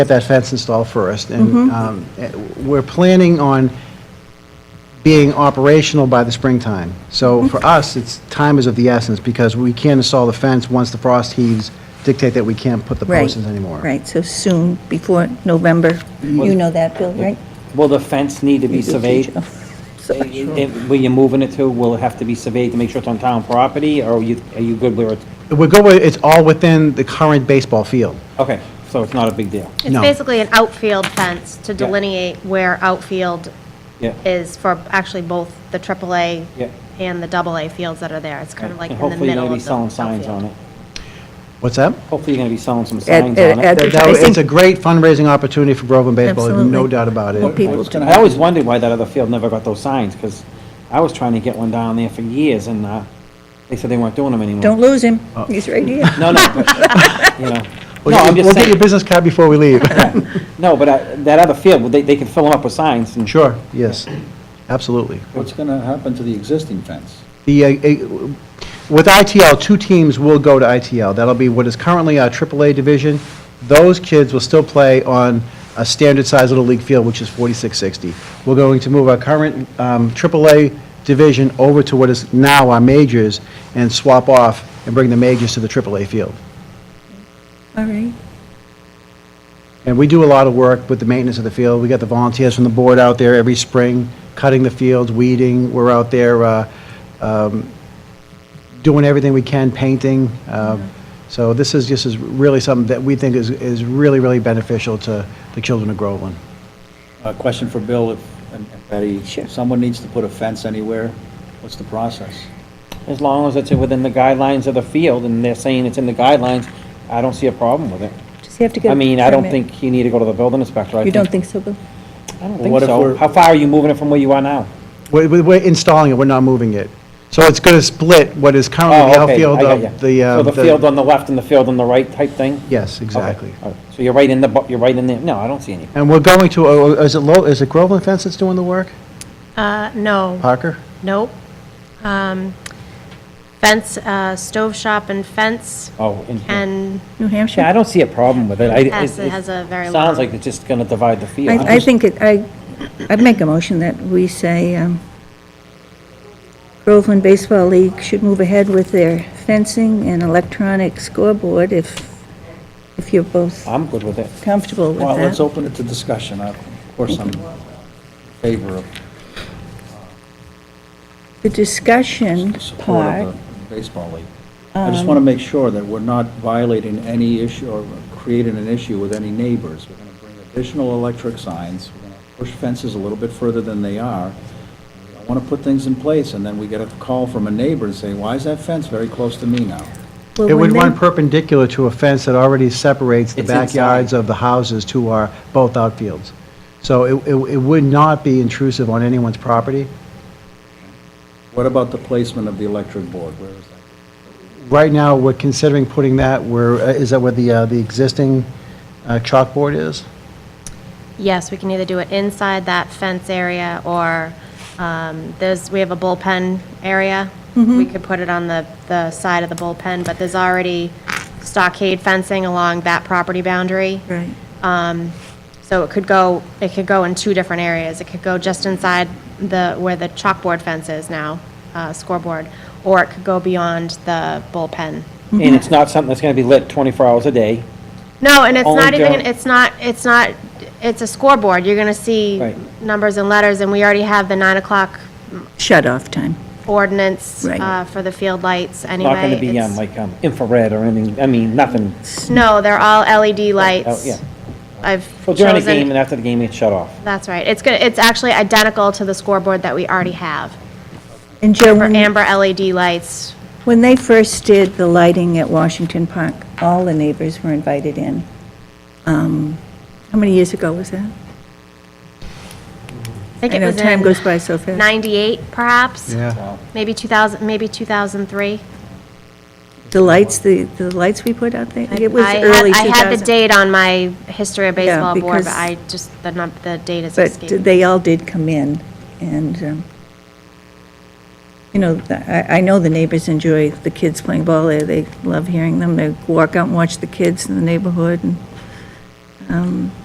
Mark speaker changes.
Speaker 1: get that fence installed first, and
Speaker 2: Mm-hmm.
Speaker 1: um, eh, we're planning on being operational by the springtime.
Speaker 2: Mm-hmm.
Speaker 1: So for us, it's, time is of the essence, because we can't install the fence once the frost heaves dictate that we can't put the
Speaker 2: Right.
Speaker 1: posts in anymore.
Speaker 2: Right, so soon, before November. You know that, Bill, right?
Speaker 3: Will the fence need to be Mm-hmm. surveyed?
Speaker 2: Oh,
Speaker 3: Where
Speaker 2: sorry.
Speaker 3: you're moving it to, will it have to be surveyed to make sure it's on town property, or are you, are you good where it's,
Speaker 1: We're going, it's all within the current baseball field.
Speaker 3: okay, so it's not a big deal?
Speaker 4: It's
Speaker 1: No.
Speaker 4: basically an outfield fence to delineate where outfield
Speaker 3: Yeah.
Speaker 4: is for actually both the AAA
Speaker 3: Yeah.
Speaker 4: and the AA fields that are there. It's kind of like in
Speaker 3: And
Speaker 4: the
Speaker 3: hopefully you're
Speaker 4: middle
Speaker 3: gonna
Speaker 4: of the
Speaker 3: be selling signs
Speaker 4: outfield.
Speaker 3: on it.
Speaker 1: What's that?
Speaker 3: Hopefully you're gonna be selling some
Speaker 2: At-
Speaker 3: signs
Speaker 2: at-
Speaker 3: on
Speaker 2: at-
Speaker 3: it.
Speaker 1: That- that- It's
Speaker 2: think-
Speaker 1: a great fundraising opportunity for Groveland baseball, there's no
Speaker 2: Absolutely.
Speaker 1: doubt about
Speaker 2: Well,
Speaker 1: it.
Speaker 2: people do.
Speaker 3: I always wondered why that other field never got those signs, because I was trying to get one down there for years, and, uh, they said they weren't doing them anymore.
Speaker 2: Don't lose him,
Speaker 3: Oh.
Speaker 2: he's right here.
Speaker 3: No, no, but, you know,
Speaker 1: We'll
Speaker 3: no, I'm
Speaker 1: get you-
Speaker 3: just
Speaker 1: we'll get your
Speaker 3: saying,
Speaker 1: business card before we leave.
Speaker 3: no, but uh, that other field, they, they can fill them up with signs and.
Speaker 1: Sure, yes, absolutely.
Speaker 5: What's going to happen to the existing fence?
Speaker 1: The, uh, uh, with ITL, two teams will go to ITL. That'll be what is currently our AAA division. Those kids will still play on a standard-sized Little League field, which is 4660. We're going to move our current um, AAA division over to what is now our majors and swap off and bring the majors to the AAA field.
Speaker 2: All right,
Speaker 1: And we do a lot of work with the maintenance of the field. We got the volunteers from the board out there every spring, cutting the fields, weeding. We're out there uh, um, doing everything we can, painting. Uh, So this is, this is really something that we think is, is really, really beneficial to the children of Groveland.
Speaker 5: A question for Bill if- and and Betty.
Speaker 2: Sure.
Speaker 5: If Someone needs to put a fence anywhere, what's the process?
Speaker 3: As long as it's within the guidelines of the field, and they're saying it's in the guidelines, I don't see a problem with it.
Speaker 2: just have to get.
Speaker 3: I
Speaker 2: a
Speaker 3: mean, I don't
Speaker 2: permit.
Speaker 3: think you need to go to the building inspector. I
Speaker 2: You don't think so, Bill?
Speaker 3: I don't
Speaker 5: Well,
Speaker 3: think
Speaker 5: what if
Speaker 3: so.
Speaker 5: we're-
Speaker 3: How far are you moving it from where you are now?
Speaker 1: We're, we're installing it, we're not moving it. So it's going to split what is currently the
Speaker 3: Oh, okay,
Speaker 1: outfield
Speaker 3: I got
Speaker 1: of
Speaker 3: you.
Speaker 1: the. uh,
Speaker 3: So the field on the left and the field on the right type thing?
Speaker 1: Yes,
Speaker 3: Okay,
Speaker 1: exactly.
Speaker 3: all right. So you're right in the, bu- you're right in there, no, I don't see any.
Speaker 1: And we're going to, oh, is it, Lo- is it Groveland Fence that's doing the work?
Speaker 4: Uh, no,
Speaker 1: Parker?
Speaker 4: nope. Um, Fence, uh, stove shop and fence,
Speaker 3: Oh, in here.
Speaker 4: and
Speaker 2: New
Speaker 3: Yeah, I
Speaker 2: Hampshire?
Speaker 3: don't see a problem with it. I- it-
Speaker 4: Has-
Speaker 3: it
Speaker 4: has a very long-
Speaker 3: Sounds like it's just gonna divide the field.
Speaker 2: I, I think, it- I, I'd make a motion that we say, um, Groveland Baseball League should move ahead with their fencing and electronic scoreboard if, if you're both
Speaker 3: I'm good with it.
Speaker 2: comfortable with that.
Speaker 5: Well, let's open it to discussion. I- Of course, I'm in favor of
Speaker 2: The discussion
Speaker 5: support
Speaker 2: part,
Speaker 3: uh,
Speaker 5: of the baseball league. I just want to make sure that we're not violating any issue or creating an issue with any neighbors. We're going to bring additional electric signs, we're going to push fences a little bit further than they are. I want to put things in place, and then we get a call from a neighbor and say, why is that fence very close to me now?
Speaker 2: well,
Speaker 1: It would
Speaker 2: when
Speaker 1: run
Speaker 2: they-
Speaker 1: perpendicular to a fence that already separates the
Speaker 3: It's inside.
Speaker 1: backyards of the houses to our, both outfields. So it, it it would not be intrusive on anyone's property.
Speaker 5: What about the placement of the electric board? Where is that?
Speaker 1: Right now, we're considering putting that where, uh, is that where the, uh, the existing uh, chalkboard is?
Speaker 4: Yes, we can either do it inside that fence area, or um, there's, we have a bullpen area. We could put it on the, the side of the bullpen, but there's already stockade fencing along that property boundary.
Speaker 2: Right.
Speaker 4: So it could go, it could go in two different areas. It could go just inside the, where the chalkboard fence is now, uh, scoreboard, or it could go beyond the bullpen.
Speaker 2: Mm-hmm.
Speaker 3: And it's not something that's gonna be lit 24 hours a day.
Speaker 4: No, and it's
Speaker 3: Only
Speaker 4: not even,
Speaker 3: don't-
Speaker 4: it's not, it's not, it's a scoreboard. You're going to see
Speaker 3: Right.
Speaker 4: numbers and letters, and we already have the nine o'clock
Speaker 2: shut-off time.
Speaker 4: ordinance
Speaker 2: Right.
Speaker 4: uh, for the field lights
Speaker 3: It's
Speaker 4: anyway.
Speaker 3: not gonna be um,
Speaker 4: It's-
Speaker 3: like um, infrared or anything, I mean, nothing.
Speaker 4: No, they're all LED lights.
Speaker 3: Oh, yeah.
Speaker 4: I've
Speaker 3: Well, during the game uh, and
Speaker 4: chosen,
Speaker 3: after the game, it's shut off.
Speaker 4: that's right. It's good, it's actually identical to the scoreboard that we already have.
Speaker 2: And Joe,
Speaker 4: For
Speaker 2: when-
Speaker 4: amber LED lights,
Speaker 2: when they first did the lighting at Washington Park, all the neighbors were invited in. Um, How many years ago was that?
Speaker 4: I think
Speaker 2: I
Speaker 4: it
Speaker 2: know
Speaker 4: was
Speaker 2: time
Speaker 4: in
Speaker 2: goes by so fast.
Speaker 4: 98 perhaps?
Speaker 1: Yeah.
Speaker 4: Maybe 2000, maybe 2003?
Speaker 2: The lights, the, the lights we put out there, it was
Speaker 4: I had-
Speaker 2: early 2000.
Speaker 4: I had the date on my history of
Speaker 2: Yeah,
Speaker 4: baseball board, but
Speaker 2: because-
Speaker 4: I just, the num, the date is
Speaker 2: But
Speaker 4: escaping.
Speaker 2: they all did come in, and, um, you know, th- I, I know the neighbors enjoy the kids playing ball there, they love hearing them, they walk out and watch the kids in the neighborhood, and, um,